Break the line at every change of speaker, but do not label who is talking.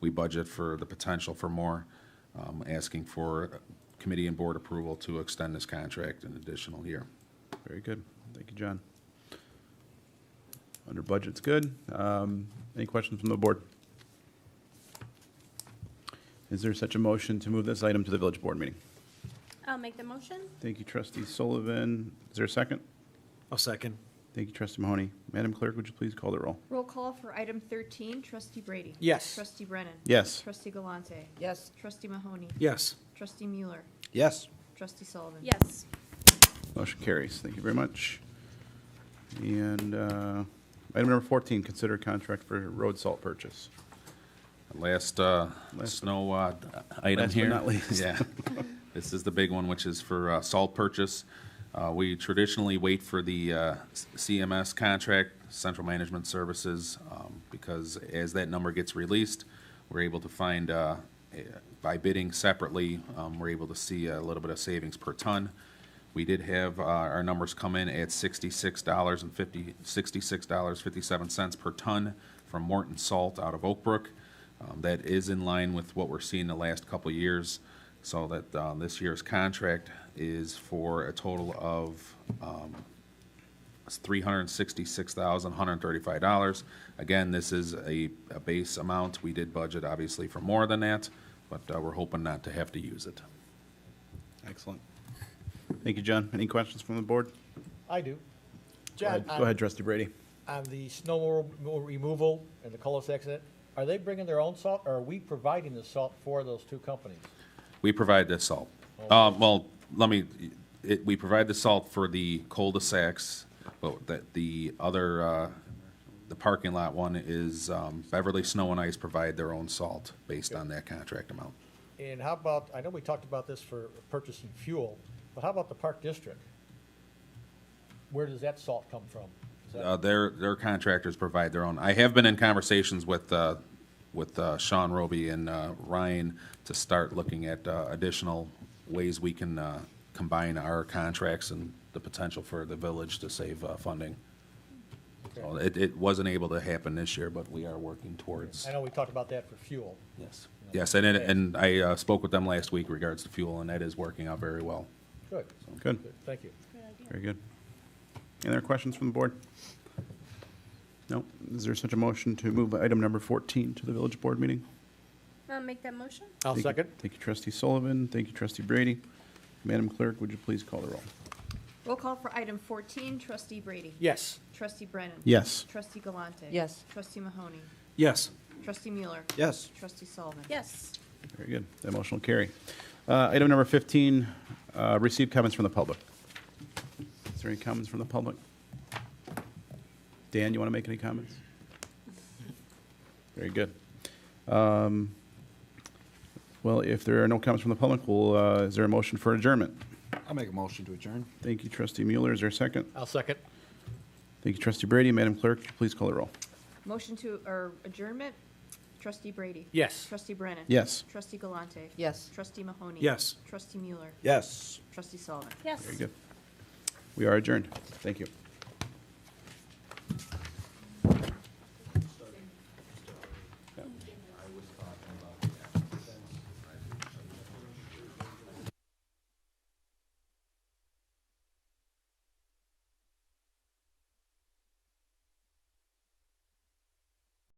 We budget for the potential for more, um, asking for committee and board approval to extend this contract an additional year.
Very good. Thank you, John. Under budget's good. Um, Any questions from the board? Is there such a motion to move this item to the village board meeting?
I'll make the motion.
Thank you, trustee Sullivan. Is there a second?
I'll second.
Thank you, trustee Mahoney. Madam Clerk, would you please call the roll?
Roll call for item 13, trustee Brady.
Yes.
Trustee Brennan.
Yes.
Trustee Galante.
Yes.
Trustee Mahoney.
Yes.
Trustee Mueller.
Yes.
Trustee Sullivan.
Yes.
Motion carries. Thank you very much. And uh, item number 14, consider contract for road salt purchase.
Last, uh,
Last-
snow, uh, item
Last but
here.
not least.
Yeah. This is the big one, which is for, uh, salt purchase. Uh, we traditionally wait for the, uh, CMS contract, Central Management Services, um, because as that number gets released, we're able to find, uh, eh, by bidding separately, um, we're able to see a little bit of savings per ton. We did have uh, our numbers come in at sixty-six dollars and fifty, sixty-six dollars fifty-seven cents per ton from Morton Salt out of Oak Brook. Um, That is in line with what we're seeing the last couple of years, so that uh, this year's contract is for a total of um, three hundred and sixty-six thousand, one hundred and thirty-five dollars. Again, this is a, a base amount. We did budget obviously for more than that, but uh, we're hoping not to have to use it.
Excellent. Thank you, John. Any questions from the board?
I do.
Go
John,
ahead- Go
on,
ahead, trustee Brady.
on the snow remo- removal and the cul de accident, are they bringing their own salt, or are we providing the salt for those two companies?
We provide the salt. Uh, well, let me, it, we provide the salt for the cul-de-sacs, but that the other, uh, the parking lot one is, um, Beverly Snow and Ice provide their own salt based on that contract amount.
And how about, I know we talked about this for purchasing fuel, but how about the Park District? Where does that salt come from? Is that-
Uh, their, their contractors provide their own. I have been in conversations with, uh, with uh, Sean Roby and, uh, Ryan to start looking at, uh, additional ways we can, uh, combine our contracts and the potential for the village to save, uh, funding. So
Okay.
it, it wasn't able to happen this year, but we are working towards,
I know we talked about that for fuel.
yes. Yes, and, it- and I, uh, spoke with them last week regards to fuel and that is working out very well.
Good,
Good.
good, thank you.
Very good. Any other questions from the board? No? Is there such a motion to move item number 14 to the village board meeting?
I'll make that motion.
I'll
Thank you- Thank you, trustee Sullivan. Thank you, trustee Brady. Madam Clerk, would you please call the roll?
Roll call for item 14, trustee Brady.
Yes.
Trustee Brennan.
Yes.
Trustee Galante.
Yes.
Trustee Mahoney.
Yes.
Trustee Mueller.
Yes.
Trustee Sullivan.
Yes.
Very good. That motion will carry. Uh, Item number 15, uh, receive comments from the public. Is there any comments from the public? Dan, you want to make any comments? Very good. Um, Well, if there are no comments from the public, well, uh, is there a motion for adjournment?
I'll make a motion to adjourn.
Thank you, trustee Mueller. Is there a second?
I'll second.
Thank you, trustee Brady. Madam Clerk, please call the roll.
Motion to, or adjournment, trustee Brady.
Yes.
Trustee Brennan.
Yes.
Trustee Galante.
Yes.
Trustee Mahoney.
Yes.
Trustee Mueller.
Yes.
Trustee Sullivan.
Yes.
Very good. We are adjourned. Thank you.